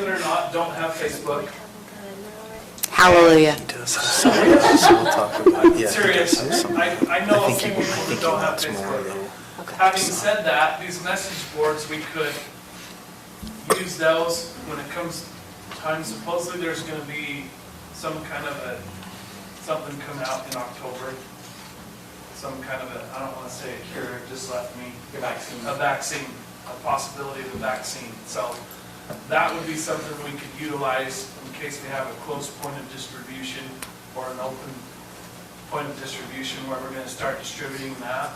don't have Facebook. Hallelujah. uh, So we'll talk about, yeah. he does Serious, have some- I, I know I of think some people he- I think who he don't have wants more, Facebook. Okay. Having said that, these message boards, we could use those when it comes time, supposedly there's gonna be some kind of a, something coming out in October. Some kind of a, I don't wanna say a cure, it just left me. A vaccine. A vaccine, a possibility of a vaccine, so that would be something we could utilize in case we have a close point of distribution or an open point of distribution where we're gonna start distributing that.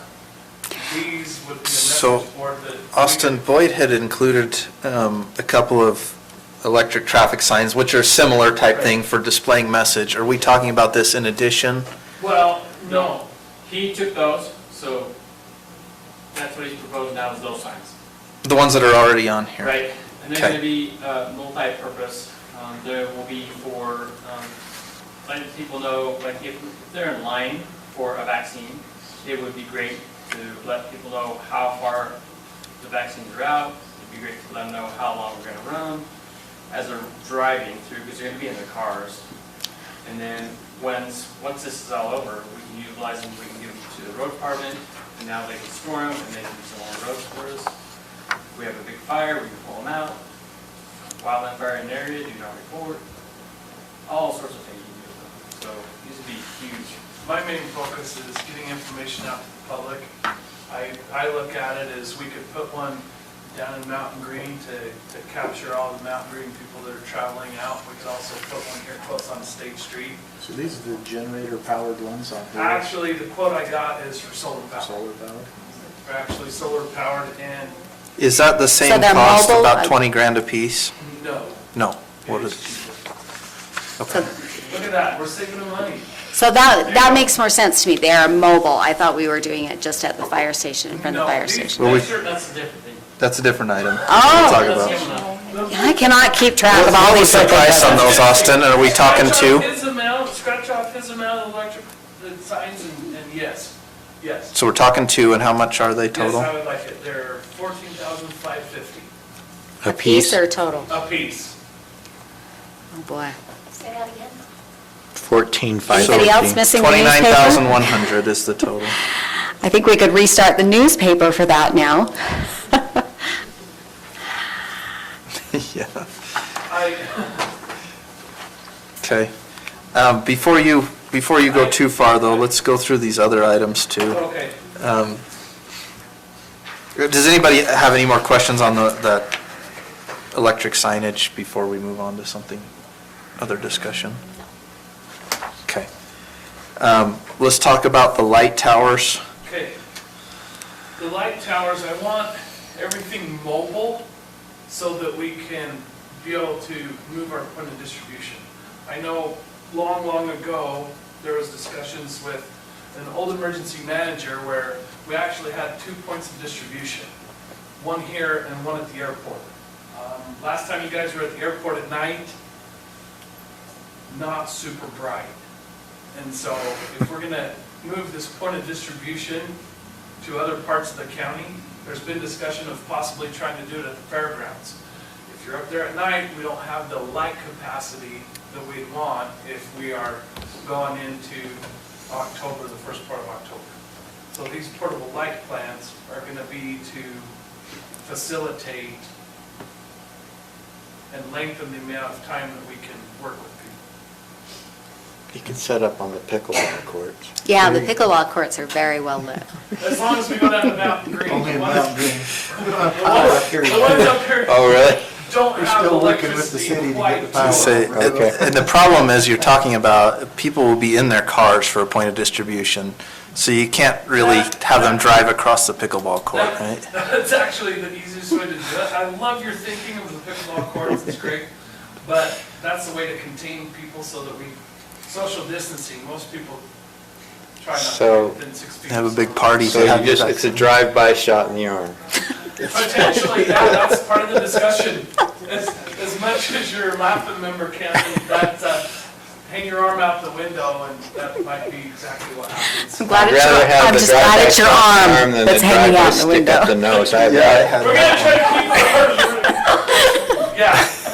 These would be a So, message board that. we could- Austin Boyd had included um, a couple of electric traffic signs, which are similar type thing for displaying message. Are we talking about this in addition? Well, no, he took those, so that's what he's proposing now is those signs, The ones that are already on here? right? And they're Okay. gonna be uh, multi-purpose, um, they will be for, um, letting people know, like if they're in line for a vaccine, it would be great to let people know how far the vaccines are out, it'd be great to let them know how long we're gonna run as they're driving through, because they're gonna be in their cars. And then, once, once this is all over, we can utilize them, we can give them to the road department, and now they can store them, and they can use them on the roads for us. If we have a big fire, we can pull them out. Wildland fire in the area, do not report. All sorts of things you can do with them. So, these would be huge. My main focus is getting information out to the public. I, I look at it as we could put one down in Mountain Green to, to capture all the Mountain Green people that are traveling out. We could also put one here close on State Street. So these are the generator-powered ones on here, Actually, the quote I got is for solar power. solar powered? They're actually solar powered and Is that the same they're cost, mobile? about I- 20 grand apiece? no. No. What It is is, cheaper. okay. Look at that, we're saving the money. So that, that makes more sense to me. They are mobile. I thought we were doing it just at the fire station, in front of the No, fire these- station. Well, we- these are- That's a different thing. That's a different Oh. item. We'll That's talk about. different enough. I cannot keep track of all What these. was the different price on buttons. those, Austin? Are we talking Scratch off two? his amount, scratch off his amount of electric, the signs, and, and yes, yes. So we're talking two, and how much are they total? Yes, I would like it, they're fourteen thousand five fifty A piece or total? a piece. Oh, boy. Say that again. Fourteen Anybody else missing the newspaper? 29,100 is the total. I think we could restart the newspaper for that now. Yeah. I, Okay. Um, Before you, before you go too far, though, let's go through these other items, too. okay, Um, Does anybody have any more questions on the, that electric signage before we move on to something, other discussion? Okay. Um, Let's talk about the light towers. okay. The light towers, I want everything mobile so that we can be able to move our point of distribution. I know long, long ago, there was discussions with an old emergency manager where we actually had two points of distribution, one here and one at the airport. Um, Last time you guys were at the airport at night, not super bright. And so if we're gonna move this point of distribution to other parts of the county, there's been discussion of possibly trying to do it at the fairgrounds. If you're up there at night, we don't have the light capacity that we'd want if we are going into October, the first part of October. So these portable light plants are gonna be to facilitate and lengthen the amount of time that we can work with people. You can set up on the pickleball courts. Yeah, the pickleball courts are very well lit. As long as we go down to Mountain Green. Only the in ones- Mountain Green. The ones the ones up here Oh, really? don't We're have still working with the city to electricity get quite the to Oh, power. Say, it. Okay. and the problem is, you're talking about, people will be in their cars for a point of distribution, so you can't really have them drive across the pickleball court, right? That- That's actually the easiest way to do it. I love your thinking of the pickleball courts, it's great. But that's the way to contain people so that we, social distancing, most people try not So- to get within six feet. Have a big party. So you just, it's a drive-by shot in the arm. Potentially, yeah, that's part of the discussion. As, as much as your laughing member can, that, uh, hang your arm out the window and that might be exactly what happens. I'm glad I'd it's your, rather have I'm the just glad drive-by it's your shot in the arm than that's hanging driver out the Stick up the window. nose. I- Yeah, I We're gonna try to keep the Yeah,